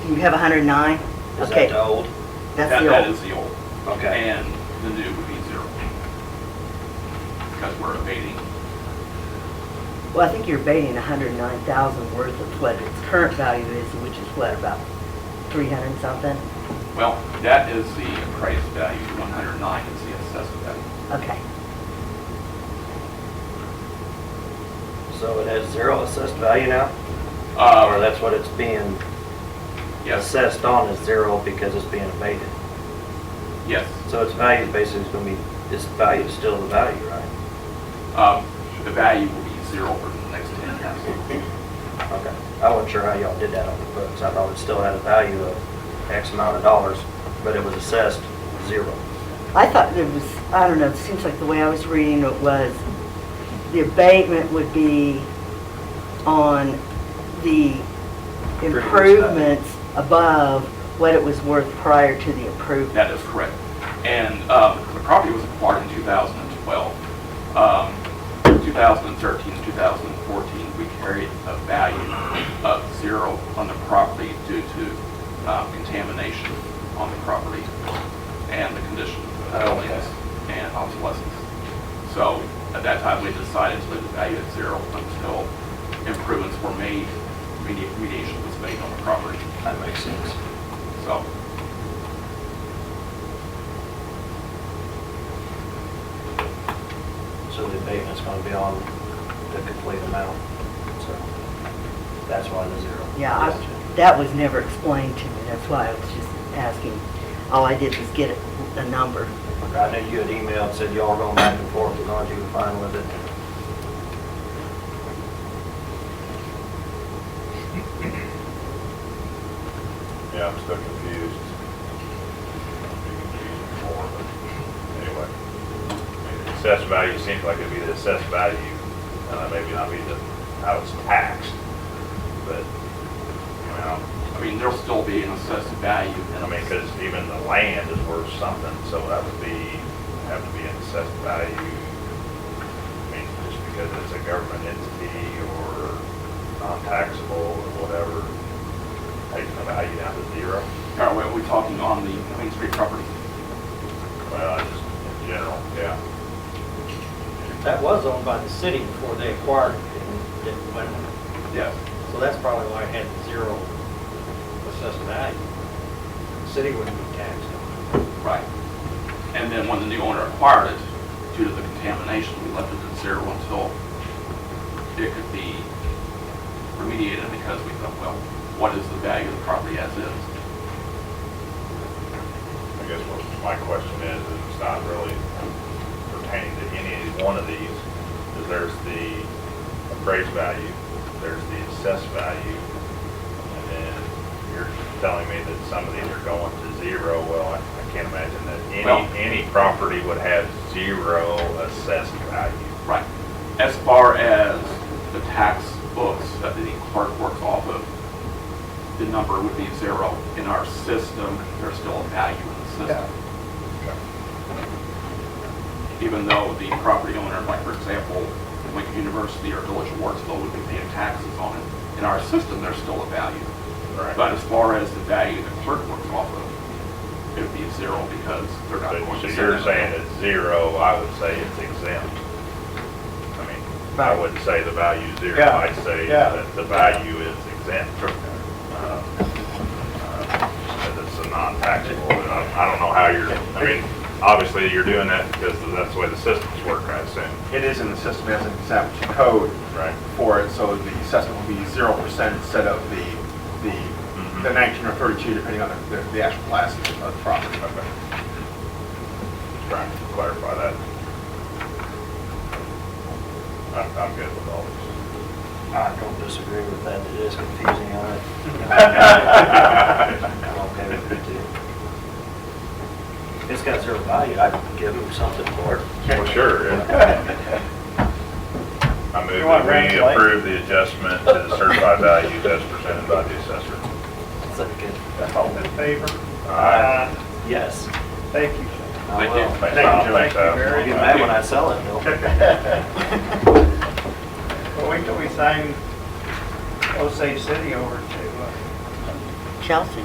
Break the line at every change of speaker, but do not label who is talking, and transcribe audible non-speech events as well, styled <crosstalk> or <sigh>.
You have 109?
Is
Okay,
that the old?
That's
That-
the
That
old.
is the old.
Okay.
And the new would be zero. Because we're abating.
Well, I think you're abating 109,000 worth of what its current value is, which is what, about 300 something?
Well, that is the appraised value, 109 is the assessed value.
Okay.
So it has zero assessed value now? Or
Uh,
that's what it's being
Yes,
assessed on is zero because it's being abated?
yes.
So its value is basically going to be, its value is still the value, right?
Um, The value will be zero for the next 10 years.
Okay. I wasn't sure how y'all did that on the books. I thought it still had a value of X amount of dollars, but it was assessed zero.
I thought there was, I don't know, it seems like the way I was reading it was, the abatement would be on the
uh,
improvements above what it was worth prior to the improvement.
That is correct. And um, the property was acquired in 2012. Um, 2013, 2014, we carried a value of zero on the property due to uh, contamination on the property and the condition of the buildings and obsolescence. So at that time, we decided to leave the value at zero until improvements were made, medi- mediation was made on the property.
That makes sense.
So
So the abatement's going to be on the complete amount. So that's why the zero.
Yeah, I- that was never explained to me, that's why I was just asking. All I did was get a- a number.
I knew you had emailed, said y'all were going back and forth, as long as you were fine with it.
Yeah, I'm still confused. I'm being confused more, but anyway. I mean, the Assessed value seems like it'd be the assessed value, uh, maybe not be the, how it's taxed, but, you know,
I mean, there'll still be an assessed value. in
I mean, because even the land is worth something, so that would be, have to be an assessed value. I mean, just because it's a government entity or non-taxable or whatever, taking the value down to zero.
Are we, are we talking on the Queen Street property?
Well, I just, in general, yeah.
That was owned by the city before they acquired it and didn't win it.
Yes.
So that's probably why it had zero assessed value. City wouldn't be taxed on
Right. And then when the new owner acquired it, due to the contamination, we left it at zero until it could be remediated because we thought, well, what is the value of the property as is?
I guess what my question is, is it's not really pertaining to any one of these, is there's the appraised value, there's the assessed value, and then you're telling me that some of these are going to zero, well, I I can't imagine that
Well-
any, any property would have zero assessed value.
Right. As far as the tax books that the clerk works off of, the number would be zero. In our system, there's still a value in the system. Even though the property owner, like for example, Lincoln University or Village of Wardsville would be paying taxes on it, in our system, there's still a value.
Right.
But as far as the value the clerk works off of, it would be zero because they're not
So
going
so
to.
you're
send
saying
it.
it's zero, I would say it's exempt. I mean, I
Right.
wouldn't say the value is zero,
Yeah,
I'd say
yeah.
that the value is exempt. Uh, uh, That it's a non-taxable, and I I don't know how you're, I mean, obviously you're doing that because that's the way the systems work, I assume,
It is in the system as an exempt code
right?
for it, so the assessment will be zero percent instead of the, the,
Mm-hmm.
the nineteen or thirty-two, depending on the, the- the actual class of the property.
Okay. Just Trying to clarify that. I'm, I'm good with all this.
I don't disagree with that, it is confusing on it. I'm okay with it too. If it's got zero value, I'd give them something for it.
Well, sure.
<laughs>
I move
You want
that we
Rand's light?
approve the adjustment to the certified values as presented by the assessor.
It's like a-
it. All in favor?
Yes.
Thank you, Shane.
I
Thank you.
will.
Thanks,
Uh, Thank
Tom.
you,
Thanks,
thank you
Al.
very
I'll get mad when I sell it, Bill.
Well, wait till we sign Osage City over to, uh,
Chelsea?